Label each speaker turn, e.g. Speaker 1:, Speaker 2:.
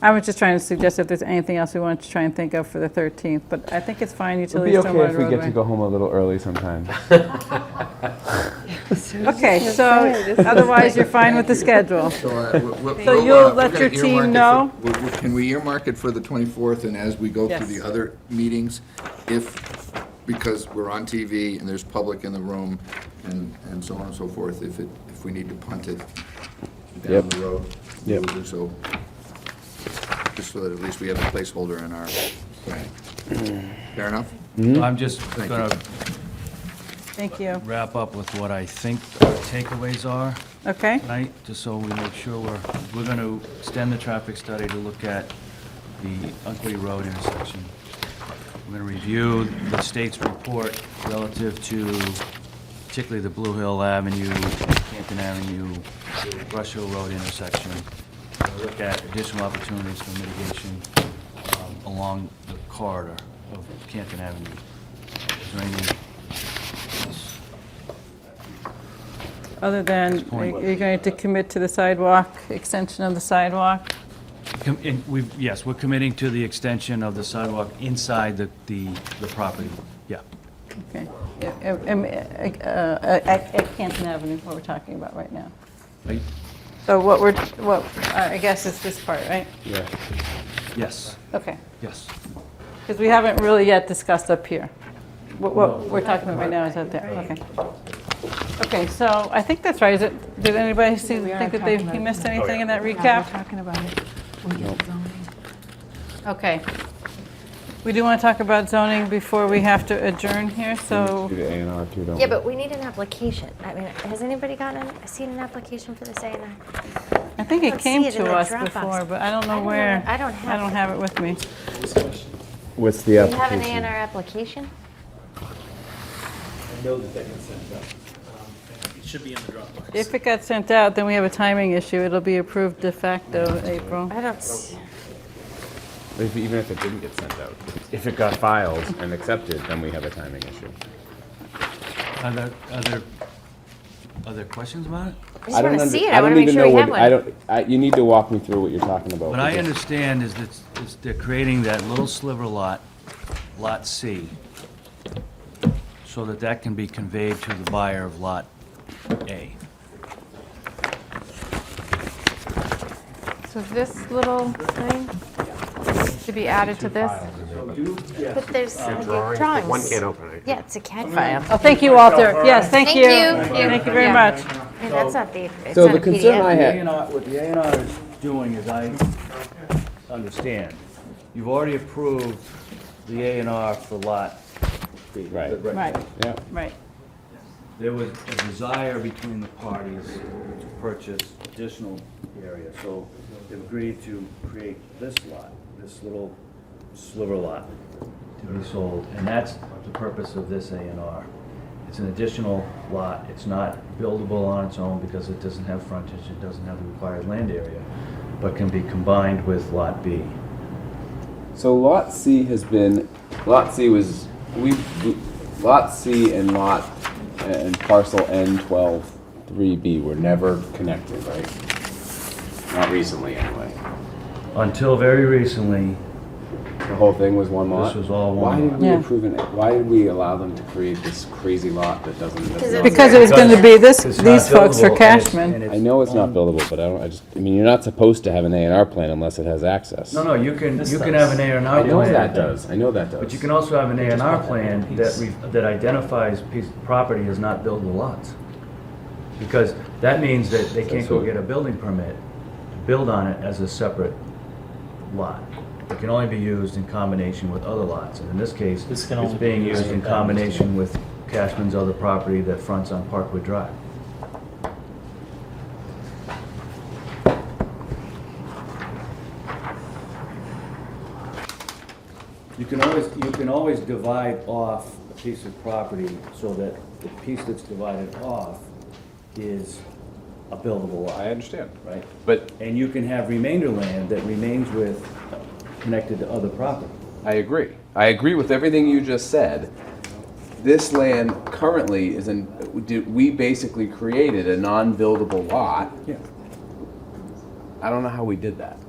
Speaker 1: I was just trying to suggest if there's anything else we wanted to try and think of for the 13th, but I think it's fine,
Speaker 2: It'll be
Speaker 1: utilities, stormwater,
Speaker 2: okay if we get to
Speaker 1: roadway.
Speaker 2: go home a little early sometimes.
Speaker 1: Okay, so otherwise, you're fine with the schedule.
Speaker 3: So uh, we- we-
Speaker 1: So
Speaker 3: we'll,
Speaker 1: you'll
Speaker 3: uh, we're
Speaker 1: let
Speaker 3: gonna
Speaker 1: your team
Speaker 3: earmark it for- we- we- Can we earmark it for the 24th, and as we go through
Speaker 1: Yes.
Speaker 3: the other meetings, if, because we're on TV and there's public in the room and, and so on and so forth, if it, if we need to punt it down
Speaker 2: Yep.
Speaker 3: the road, we'll
Speaker 2: Yep.
Speaker 3: do so. Just so that at least we have a placeholder in our planning. Fair enough?
Speaker 4: I'm just
Speaker 3: you.
Speaker 4: going to
Speaker 1: Thank you.
Speaker 4: wrap up with what I think our takeaways are
Speaker 1: Okay?
Speaker 4: tonight, just so we make sure we're, we're going to extend the traffic study to look at the Unkley Road intersection. We're going to review the state's report relative to particularly the Blue Hill Avenue, Canton Avenue, Brush Hill Road intersection. We're gonna Look at additional opportunities for mitigation um, along the corridor of Canton Avenue. Is there anything else?
Speaker 1: Other than, are
Speaker 4: point.
Speaker 1: you going to commit to the sidewalk, extension of the sidewalk?
Speaker 4: Com- and we've- Yes, we're committing to the extension of the sidewalk inside the, the the property, yeah.
Speaker 1: Okay. Uh, uh, um, uh, uh, At at Canton Avenue, what we're talking about right now.
Speaker 4: Right?
Speaker 1: So what we're, what, I guess it's this part, right?
Speaker 2: Yeah.
Speaker 4: Yes,
Speaker 1: Okay.
Speaker 4: yes.
Speaker 1: Because we haven't really yet discussed up here. What, what we're talking about right now is up there, okay. Okay, so I think that's right. Is it, did anybody see,
Speaker 5: We are
Speaker 1: think that they,
Speaker 5: talking about
Speaker 1: he
Speaker 5: it.
Speaker 1: missed anything in that
Speaker 5: Yeah,
Speaker 1: recap?
Speaker 5: we're talking about it. We get zoning.
Speaker 1: Okay. We do want to talk about zoning before we have to adjourn here, so,
Speaker 2: Do the A and R too, don't
Speaker 6: Yeah,
Speaker 2: we?
Speaker 6: but we need an application. I mean, has anybody gotten, seen an application for this A and R?
Speaker 1: I think it
Speaker 6: don't
Speaker 1: came
Speaker 6: see it in
Speaker 1: to
Speaker 6: that
Speaker 1: us
Speaker 6: Dropbox.
Speaker 1: before, but I don't
Speaker 6: I
Speaker 1: know
Speaker 6: don't
Speaker 1: where.
Speaker 6: have- I don't have
Speaker 1: I don't
Speaker 6: it.
Speaker 1: have it with me.
Speaker 2: What's the
Speaker 6: Do you have an A
Speaker 2: application?
Speaker 6: and R application?
Speaker 7: I know that they can send it up. Um, It should be in the Dropbox.
Speaker 1: If it got sent out, then we have a timing issue. It'll be approved de facto April.
Speaker 6: I don't, s-
Speaker 2: If- Even if it didn't get sent out. If it got filed and accepted, then we have a timing issue.
Speaker 4: Are there, are there other questions about it?
Speaker 6: I just
Speaker 2: don't
Speaker 6: want to
Speaker 2: under-
Speaker 6: see it. I want to make
Speaker 2: even
Speaker 6: sure
Speaker 2: know
Speaker 6: we
Speaker 2: what-
Speaker 6: have one.
Speaker 2: I don't, I, you need to walk me through what you're talking about.
Speaker 4: What I
Speaker 2: because-
Speaker 4: understand is that it's- they're creating that little sliver lot, Lot C, so that that can be conveyed to the buyer of Lot A.
Speaker 5: So this little thing should be added to this?
Speaker 6: But there's drawings. One can't open it. Yeah, it's a CAD file.
Speaker 1: Oh, thank you, Walter. Yes, thank
Speaker 6: Thank
Speaker 1: you.
Speaker 6: you.
Speaker 1: Thank you very
Speaker 5: Yeah.
Speaker 1: much.
Speaker 6: And that's not the, it's
Speaker 2: So
Speaker 6: not
Speaker 2: the
Speaker 6: a
Speaker 2: concern I
Speaker 6: PDF.
Speaker 2: had,
Speaker 4: What the A and R is doing is I understand, you've already approved the A and R for Lot
Speaker 2: right,
Speaker 1: Right,
Speaker 2: yeah.
Speaker 1: right.
Speaker 4: there was a desire between the parties to purchase additional area, so they've agreed to create this lot, this little sliver lot to be sold, and that's the purpose of this A and R. It's an additional lot, it's not buildable on its own because it doesn't have frontage, it doesn't have the required land area, but can be combined with Lot B.
Speaker 2: So lot C has been, lot C was, we, we- lot C and lot, and parcel N twelve, three B were never connected, right? Not recently, anyway.
Speaker 4: Until very recently,
Speaker 2: The whole thing was one lot?
Speaker 4: was all one
Speaker 2: Why did
Speaker 4: lot.
Speaker 2: we
Speaker 1: Yeah.
Speaker 2: approve it, why did we allow them to create this crazy lot that doesn't?
Speaker 6: Because
Speaker 2: doesn't-
Speaker 6: it's-
Speaker 1: Because it was going to be this,
Speaker 4: it's not
Speaker 1: these folks
Speaker 4: buildable,
Speaker 1: for
Speaker 4: and it's-
Speaker 1: Cashman.
Speaker 4: and it's
Speaker 2: I know it's
Speaker 4: Um,
Speaker 2: not buildable, but I don't, I just, I mean, you're not supposed to have an A and R plan unless it has access.
Speaker 4: No, no, you can, you can have an A and R
Speaker 2: I
Speaker 4: plan.
Speaker 2: know that does, I know that does.
Speaker 4: But you can also have an A and R plan that, re- that identifies piece, property as not buildable lots. Because that means that they can't go get a building permit, to build on it as a separate lot. It can only be used in combination with other lots, and in this case,
Speaker 7: This
Speaker 4: it's
Speaker 7: can only be
Speaker 4: being
Speaker 7: used
Speaker 4: used in
Speaker 7: in
Speaker 4: combination with Cashman's other property that fronts on Parkwood Drive. You can always, you can always divide off a piece of property so that the piece that's divided off is a buildable lot,
Speaker 2: understand.
Speaker 4: right?
Speaker 2: But
Speaker 4: And you can have remainder land that remains with, connected to other property.
Speaker 2: I agree. I agree with everything you just said. This land currently is in, do- we basically created a non-buildable lot.
Speaker 4: Yeah.
Speaker 2: I don't know how we did that.